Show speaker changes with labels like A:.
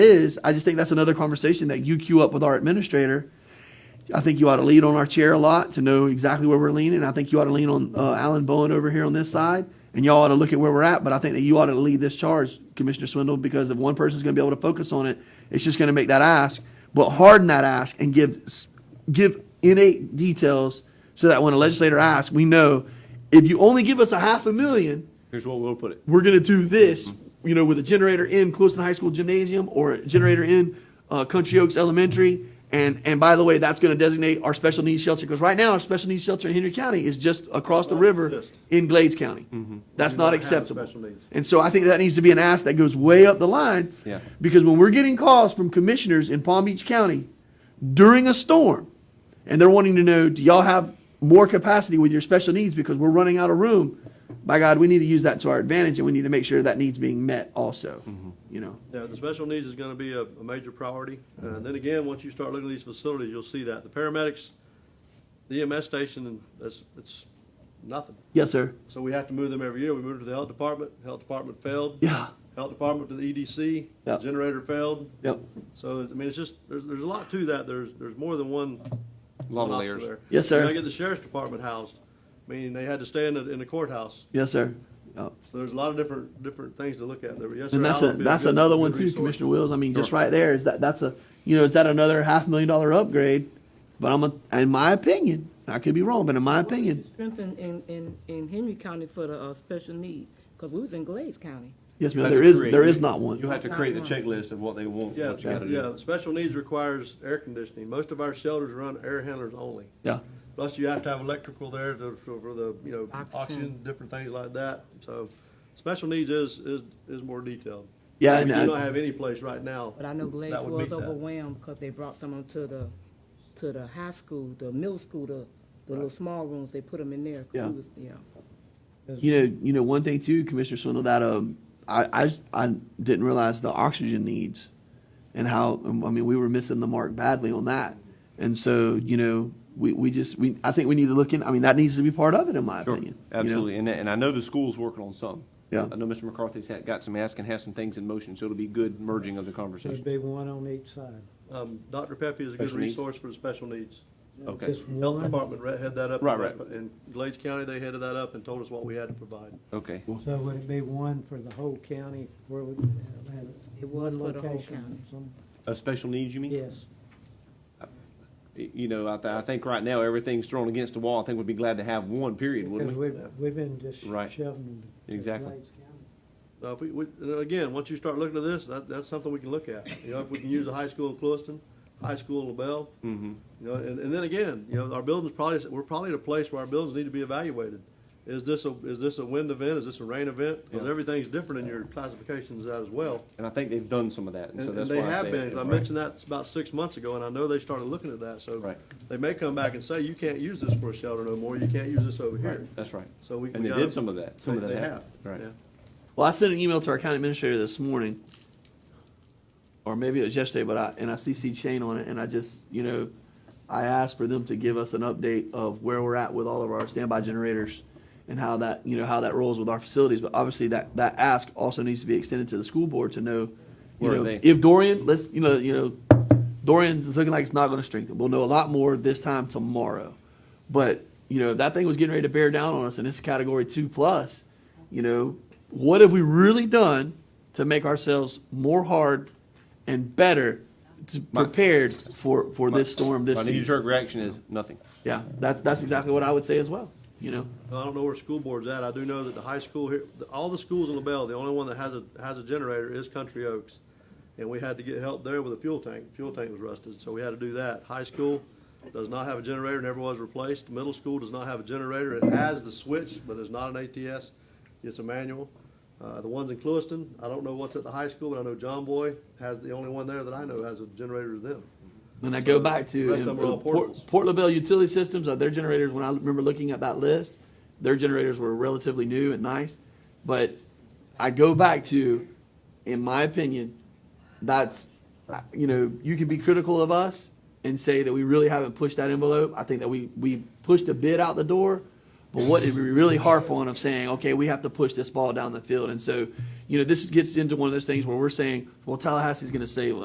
A: is. I just think that's another conversation that you queue up with our administrator. I think you ought to lean on our chair a lot to know exactly where we're leaning. I think you ought to lean on uh, Alan Bowen over here on this side, and y'all ought to look at where we're at. But I think that you ought to lead this charge, Commissioner Swindle, because if one person's going to be able to focus on it, it's just going to make that ask, but harden that ask and give s- give innate details so that when a legislator asks, we know if you only give us a half a million,
B: Here's what we'll put it.
A: we're going to do this, you know, with a generator in Clueston High School Gymnasium or a generator in uh, Country Oaks Elementary. And, and by the way, that's going to designate our special needs shelter because right now our special needs shelter in Henry County is just across the river
C: Just. Mm-hmm.
A: in Glades County. That's
C: We
A: not
C: don't have
A: acceptable.
C: special needs.
A: And so I think that needs to be an ask that goes way up the line.
B: Yeah.
A: Because when we're getting calls from commissioners in Palm Beach County during a storm, and they're wanting to know, do y'all have more capacity with your special needs because we're running out of room? By God, we need to use that to our advantage, and we need to make sure that needs being met also. You know,
C: Yeah, the special needs is gonna be a, a major priority. And then again, once you start looking at these facilities, you'll see that. The paramedics, the EMS station, that's, it's nothing.
A: yes, sir.
C: So we have to move them every year. We moved to the health department, health department failed.
A: Yeah.
C: Health department to the EDC,
A: Yeah.
C: generator failed.
A: Yep.
C: So, I mean, it's just, there's, there's a lot to that. There's, there's more than one.
B: Lot of
C: one obstacle
B: layers.
C: there.
A: Yes, sir.
C: You gotta get the sheriff's department housed. I mean, they had to stay in the, in the courthouse.
A: Yes, sir. Yep.
C: So there's a lot of different, different things to look at there. But yes, sir,
A: And that's
C: Allen
A: a,
C: would be
A: that's
C: good-
A: another
C: good
A: one too,
C: resource.
A: Commissioner Wills. I mean, just right there is that that's a you know is that another half million dollar upgrade? But I'm a, in my opinion, I could be wrong, but in my opinion,
D: Strengthen in, in, in Henry County for the, uh, special need, because we was in Glades County.
A: yes,
B: You
A: ma'am.
B: have to
A: There is
B: create-
A: there is not one.
B: You have to create the checklist of what they want,
C: Yeah,
B: what you gotta
C: yeah,
B: do.
C: special needs requires air conditioning. Most of our shelters run air handlers only.
A: Yeah.
C: Plus, you have to have electrical there to, for for the, you know,
D: Oxygen.
C: oxygen, different things like that. So, special needs is, is, is more detailed.
A: Yeah,
C: We
A: and
C: do
A: I-
C: not have any place right now.
D: But I know Glades
C: that would meet
D: was
C: that.
D: overwhelmed, because they brought some of them to the, to the high school, the middle school, the, the little small rooms, they put them in there. 'cause we
A: Yeah.
D: was- Yeah.
A: You know, you know, one thing too, Commissioner Swindle, that um, I I, just, I didn't realize the oxygen needs, and how um, I mean we were missing the mark badly on that, and so you know we, we just we I think we need to look in. I mean that needs to be part of it in my
B: Sure,
A: opinion. you know?
B: absolutely. And, and I know the school's working on some.
A: Yeah.
B: I know Mr. McCarthy's had, got some ask and has some things in motion, so it'll be good merging of the
E: There'd
B: conversation.
E: be one on each side.
C: Um, Dr. Pepe is a good
B: Special needs.
C: resource for the special needs.
B: Okay,
E: Just
C: Health
E: one,
C: Department re- headed that up.
B: Right, right.
C: In Glades County, they headed that up and told us what we had to provide.
B: okay.
E: so would it be one for the whole county? Where would, uh, have
D: It was
E: one
D: for the whole
E: location
D: county.
E: some-
B: A special needs, you mean?
E: Yes.
B: You know, I, th- I think right now, everything's thrown against the wall. I think we'd be glad to have one, period,
E: Because
B: wouldn't we?
E: we've, we've been just
B: Right.
E: shoving them to
B: Exactly.
E: Glades County.
C: Now, Uh, if we, we, and again, once you start looking at this, that, that's something we can look at. You know, if we can use a high school in Clewiston, high school in LaBelle. Mm-hmm. You know, and, and then again, you know, our buildings probably, we're probably at a place where our buildings need to be evaluated. Is this a, is this a wind event? Is this a rain event? Because
B: Yeah.
C: everything's different in your classifications of that as well.
B: And I think they've done some of that, and
C: And,
B: so
C: and
B: that's why I
C: they
B: say.
C: have
B: it,
C: been. 'cause
B: it's
C: I
B: right.
C: mentioned that about six months ago, and I know they started looking at that, so.
B: Right.
C: They may come back and say, you can't use this for a shelter no more. You can't use this over here.
B: Right, That's right.
C: So we.
B: And
C: we
B: they
C: gotta-
B: did some of that, some of
C: they-
B: that
C: They have.
B: happened. Right.
C: yeah.
A: Well, I sent an email to our county administrator this morning, or maybe it was yesterday, but I, and I CC Shane on it, and I just, you know, I asked for them to give us an update of where we're at with all of our standby generators and how that, you know, how that rolls with our facilities. But obviously, that, that ask also needs to be extended to the school board to know, you
B: Where are
A: know,
B: they?
A: if Dorian, let's, you know, you know, Dorian's it's looking like it's not going to strengthen. We'll know a lot more this time tomorrow. But you know, if that thing was getting ready to bear down on us, and it's a category two plus. You know, what have we really done to make ourselves more hard and better to,
B: My-
A: prepared for for this storm this
B: My
A: season?
B: knee-jerk reaction is nothing.
A: Yeah, that's that's exactly what I would say as well. You know,
C: I don't know where school board's at. I do know that the high school here, the- all the schools in LaBelle, the only one that has a, has a generator is Country Oaks. And we had to get help there with a fuel tank. Fuel tank was rusted, so we had to do that. High school does not have a generator, never was replaced. Middle school does not have a generator. It has the switch, but it's not an ATS. It's a manual. Uh, the ones in Clewiston, I don't know what's at the high school, but I know John Boy has the only one there that I know has a generator to them.
A: And I go back to um, uh,
C: Rest of them are all portables.
A: Port, Port LaBelle Utility Systems. Uh, their generators, when I remember looking at that list, their generators were relatively new and nice. But I go back to, in my opinion, that's uh, you know you can be critical of us and say that we really haven't pushed that envelope. I think that we we pushed a bit out the door, but what did we really harp on of saying okay we have to push this ball down the field? And so you know, this gets into one of those things where we're saying, well, Tallahassee's going to save us.